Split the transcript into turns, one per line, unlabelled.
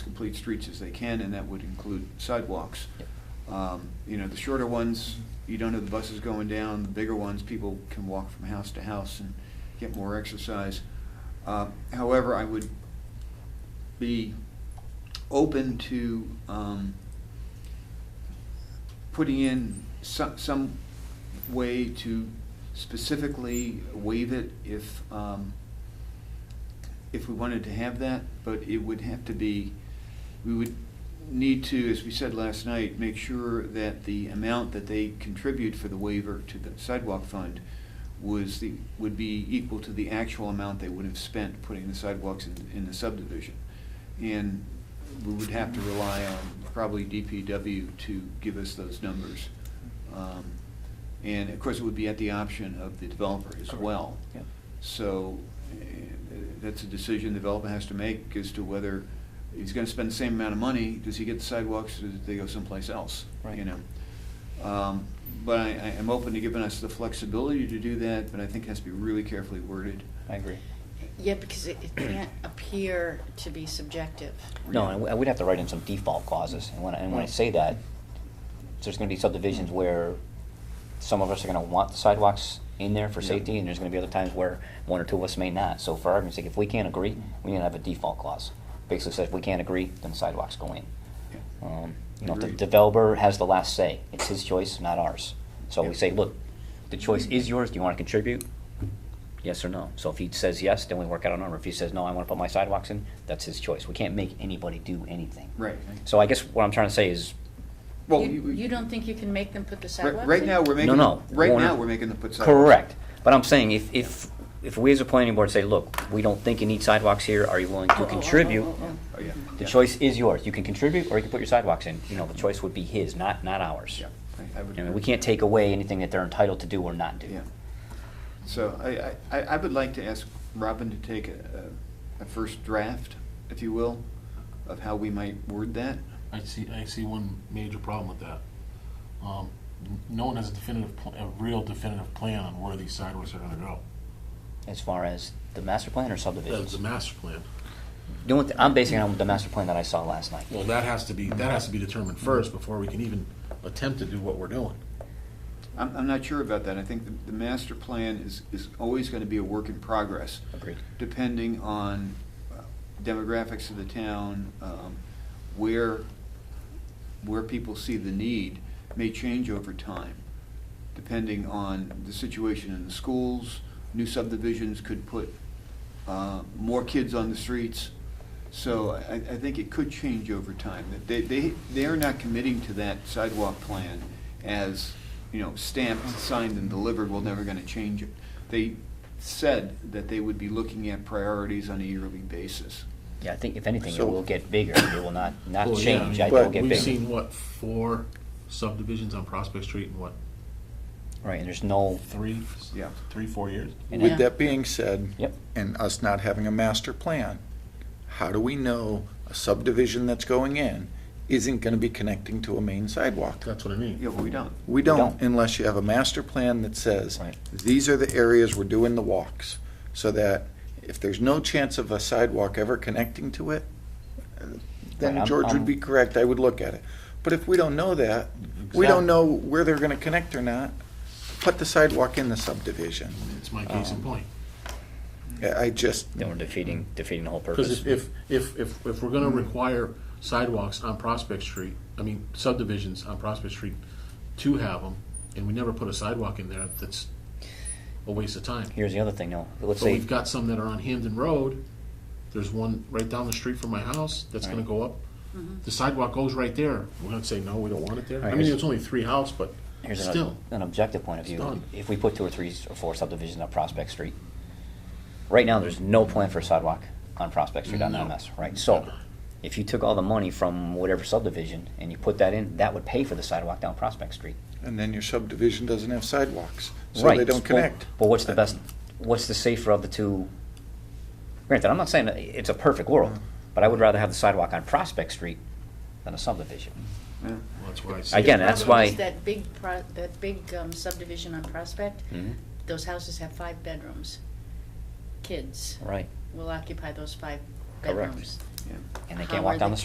complete streets as they can, and that would include sidewalks.
Yep.
Um, You know, the shorter ones, you don't have the buses going down, the bigger ones, people can walk from house to house and get more exercise. Uh, However, I would be open to um, putting in some, some way to specifically waive it if, um, if we wanted to have that, but it would have to be, we would need to, as we said last night, make sure that the amount that they contribute for the waiver to the sidewalk fund was the, would be equal to the actual amount they would have spent putting the sidewalks in, in the subdivision. And we would have to rely on probably DPW to give us those numbers. Um, And of course, it would be at the option of the developer as
Correct.
well.
Yep.
So eh, that's a decision the developer has to make as to whether he's gonna spend the same amount of money, does he get the sidewalks, or do they go someplace else? You
Right.
know? Um, But I, I am open to giving us the flexibility to do that, but I think it has to be really carefully worded.
I agree.
Yeah, because it it can't appear to be subjective.
No, and we- and we'd have to write in some default clauses, and when, I- and when I say that, there's gonna be subdivisions where some of us are gonna want the sidewalks in there for
Yeah.
safety, and there's gonna be other times where one or two of us may not. So for argument's sake, if we can't agree, we need to have a default clause. Basically says, if we can't agree, then sidewalks go in.
Yeah.
Um, You know, if the
Agreed.
developer has the last say, it's his choice, not ours. So
Yeah.
we say, look, the choice is yours, do you wanna contribute? Yes or no? So if he says yes, then we work out a number. If he says no, I want to put my sidewalks in, that's his choice. We can't make anybody do anything.
Right.
So I guess what I'm trying to say is,
Well,
You-
we-
You don't think you can make them put the
Right,
sidewalks in?
right now, we're making,
eh? no.
right
Warner-
now, we're making the put sidewalks.
correct. But I'm saying if, if, if we as a planning board say, look, we don't think you need sidewalks here, are you willing
Oh, oh,
to
oh,
contribute?
oh, oh, oh.
Oh, yeah.
The
yeah.
choice is yours. You can contribute or you can put your sidewalks in. You know, the choice would be his, not, not ours.
Yeah, I- I would.
I mean, we can't take away anything that they're entitled to do or not do.
Yeah. So I, I, I- I would like to ask Robin to take a, a a first draft, if you will, of how we might word that.
I see, I see one major problem with that. Um, n- No one has a definitive, pl- a real definitive plan on where these sidewalks are gonna go.
As far as the master plan or
That's
subdivisions?
the master plan.
The only, thi- I'm basing it on the master plan that I saw last night.
Well, that has to be, that has to be determined first before we can even attempt to do what we're doing.
I'm, I'm not sure about that. I think the, the master plan is, is always gonna be a work in progress,
Agreed.
depending on uh, demographics of the town, um, where, where people see the need may change over time, depending on the situation in the schools. New subdivisions could put uh, more kids on the streets. So I, I think it could change over time. That They, they, they are not committing to that sidewalk plan as, you know, stamped, signed, and delivered, we're never gonna change it. They said that they would be looking at priorities on a yearly basis.
Yeah, I think if anything, it
So-
will get bigger. It will not, not
Well, yeah, I
change.
mean,
It will
but
get
We've
bigger.
seen, what, four subdivisions on Prospect Street in what,
Right, and there's no,
three?
Yeah.
Three, four years?
and
Yeah.
With that being said.
Yep.
And us not having a master plan, how do we know a subdivision that's going in isn't gonna be connecting to a main sidewalk?
That's what I mean.
Yeah, but we don't.
We
don't.
don't unless you have a master plan that says,
Right.
these are the areas we're doing the walks. So that if there's no chance of a sidewalk ever connecting to it,
Right,
then
I'm-
George
I'm-
would be correct, I would look at it. But if we don't know that, we
Exactly.
don't know where they're gonna connect or not, put the sidewalk in the subdivision.
It's my case in
Um,
point.
I I just,
then we're defeating, defeating the whole
Because
purpose.
if, if, if, if, if we're gonna require sidewalks on Prospect Street, I mean subdivisions on Prospect Street to have them, and we never put a sidewalk in there, that's a waste of time.
Here's the other thing, though. Let's
But
say,
we've got some that are on Hamden Road, there's one right down the street from my house that's gonna go up. The sidewalk goes right there, we're gonna say, no, we don't want it there. I mean, it's only three house, but
here's an,
still,
an objective point of
It's
view.
done.
If we put two or three or four subdivisions on Prospect Street, right now, there's no plan for a sidewalk on Prospect Street on
No.
MS, right? So, if you took all the money from whatever subdivision and you put that in, that would pay for the sidewalk down Prospect Street.
and then your subdivision doesn't have sidewalks, so
right.
they don't
Well,
connect.
But what's the best, what's the safer of the two? Granted, I'm not saying that it's a perfect world,
Mm-hmm.
but I would rather have the sidewalk on Prospect Street than a subdivision.
Yeah.
Well, that's why I say.
Again,
it.
that's
Problem
why,
is That big, pro- that big um, subdivision on Prospect,
Mhm.
Mm-hmm.
those houses have five bedrooms. Kids
right,
will occupy those five
Correct.
bedrooms.
Yeah.
and they
How
can't
are
walk down
they
the